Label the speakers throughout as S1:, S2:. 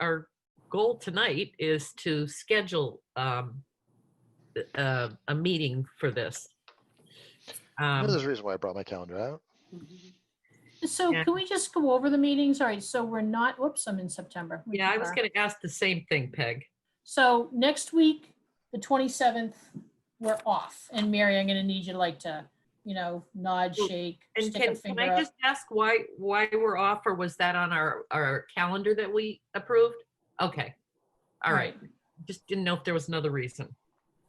S1: our goal tonight is to schedule um, a, a meeting for this. Um,
S2: There's a reason why I brought my calendar out.
S3: So
S1: Yeah.
S3: can we just go over the meetings? All right, so we're not, whoops, I'm in September. We
S1: Yeah, I was
S3: are.
S1: gonna ask the same thing, Peg.
S3: So next week, the 27th, we're off. And Mary, I'm going to need you to like to, you know, nod,
S1: Well,
S3: shake,
S1: And
S3: stick a
S1: can, can
S3: finger
S1: I
S3: up.
S1: just ask why, why we're off, or was that on our, our calendar that we approved? Okay, all right, just didn't know if there was another reason.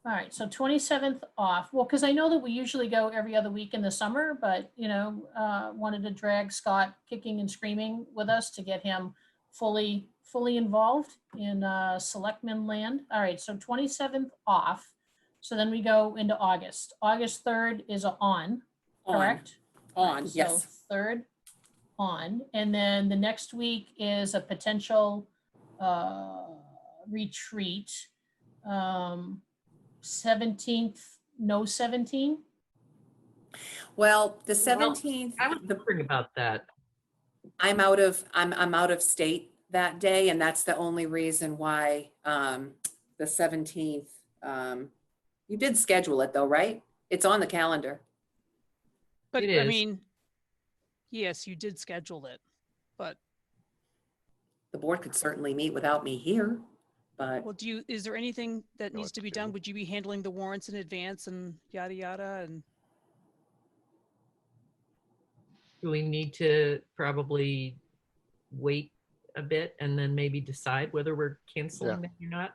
S3: All right, so 27th off. Well, because I know that we usually go every other week in the summer, but, you know, uh, wanted to drag Scott kicking and screaming with us to get him fully, fully involved in uh, Selectmen land. All right, so 27th off. So then we go into August. August 3rd is a on,
S4: On,
S3: correct?
S4: on,
S3: So
S4: yes.
S3: Third on, and then the next week is a potential uh, retreat. Um, 17th, no 17?
S4: Well, the
S1: Well,
S4: seventeenth,
S1: I was wondering about that.
S4: I'm out of, I'm, I'm out of state that day, and that's the only reason why, um, the seventeenth, um, you did schedule it though, right? It's on the calendar.
S5: But
S1: It is.
S5: I mean, yes, you did schedule it, but
S4: The board could certainly meet without me here, but
S5: well, do you, is there anything that
S2: Know
S5: needs
S2: what
S5: to
S2: to
S5: be done?
S2: do.
S5: Would you be handling the warrants in advance and yada, yada? And
S1: Do we need to probably wait a bit and then maybe decide whether we're canceling that or not?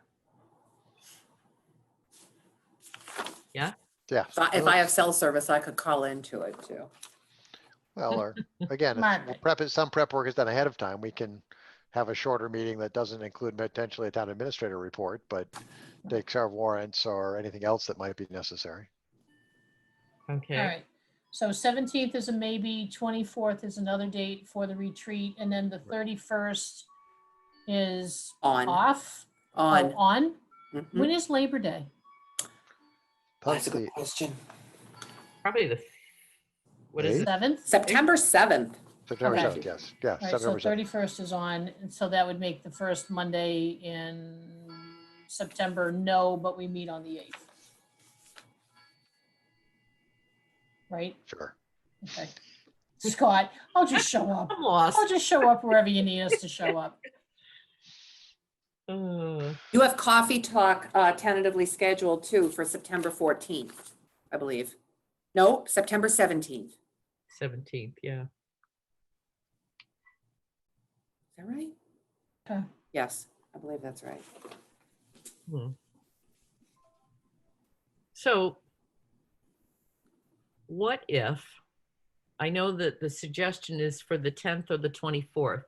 S2: Yeah.
S4: if I- if I have cell service, I could call into it too.
S2: Well, or again, if we'll
S3: Margaret.
S2: prep, some prep work is done ahead of time. We can have a shorter meeting that doesn't include potentially a town administrator report, but takes our warrants or anything else that might be necessary.
S3: All
S1: Okay,
S3: right. So 17th is a maybe, 24th is another date for the retreat, and then the 31st is
S4: On,
S3: off? Oh,
S4: on.
S3: On?
S4: Mhm.
S3: When is Labor Day?
S2: That's the
S6: question.
S1: probably the, what is
S2: Eight?
S1: it?
S3: 7th?
S4: September seventh.
S2: September
S3: Okay.
S2: seventh, yes, yeah,
S3: All right, so
S2: September seventh.
S3: thirty-first is on, and so that would make the first Monday in September, no, but we meet on the eighth. Right,
S2: Sure.
S3: okay. Scott, I'll just show up.
S1: I'm lost.
S3: I'll just show up wherever you need us to show up.
S1: Ugh.
S4: You have coffee talk uh, tentatively scheduled too for September 14th, I believe. No, September 17th. Is
S1: 17th, yeah.
S4: that right?
S3: Okay.
S4: Yes, I believe that's right.
S1: Hmm. So what if, I know that the suggestion is for the 10th or the 24th.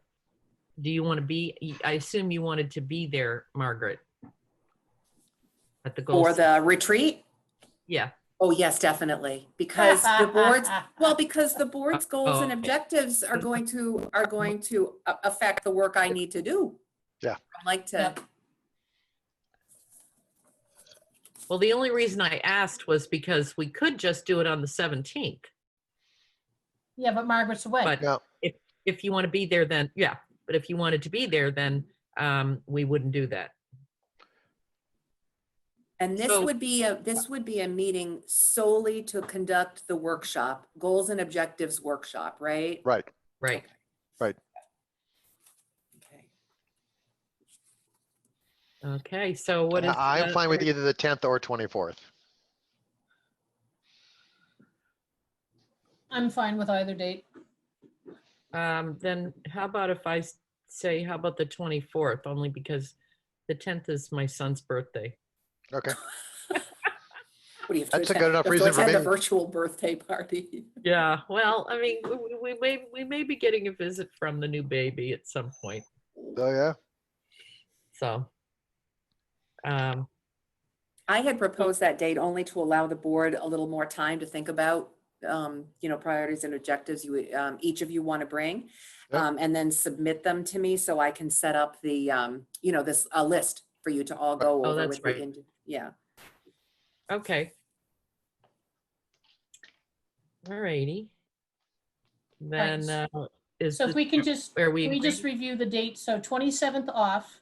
S1: Do you want to be, y- I assume you wanted to be there, Margaret? At the goal,
S4: For the retreat?
S1: yeah,
S4: Oh, yes, definitely. Because the board's, well, because the board's goals and
S1: Oh.
S4: objectives are going to, are going to a- affect the work I need to do.
S2: Yeah.
S4: I'd like to,
S3: Yep.
S1: well, the only reason I asked was because we could just do it on the 17th.
S3: Yeah, but Margaret's away.
S1: But
S2: Yeah.
S1: if, if you want to be there, then, yeah, but if you wanted to be there, then um, we wouldn't do that.
S4: and this
S1: So-
S4: would be, a this would be a meeting solely to conduct the workshop, goals and objectives workshop, right?
S2: Right,
S1: Right.
S4: Okay.
S1: Okay, so what uh, is?
S2: I- I'm
S1: the-
S2: fine with either the tenth or twenty-fourth.
S3: I'm fine with either date.
S1: Um, then how about if I s- say, how about the twenty-fourth, only because the tenth is my son's birthday.
S2: Okay,
S4: What do you have to
S2: That's a
S4: attend-
S2: good enough
S4: you have to
S2: reason for
S4: attend
S2: me.
S4: A virtual birthday party.
S1: Yeah, well, I mean, we, we- we may, we may be getting a visit from the new baby at some point,
S2: oh, yeah,
S1: so. Um,
S4: I had proposed that date only to allow the board a little more time to think about, um, you know, priorities and objectives you, would, um, each of you want to bring.
S2: Yep.
S4: Um, and then submit them to me so I can set up the, um, you know, this, a list for you to all go
S1: Oh,
S4: over
S1: that's
S4: with. the
S1: right.
S4: indi- Yeah.
S1: okay. Alrighty. Then,
S3: Right,
S1: uh, is,
S3: So if
S1: this-
S3: we can just,
S1: are
S3: can
S1: we,
S3: we just
S1: agree-
S3: review the date? So twenty-seventh off,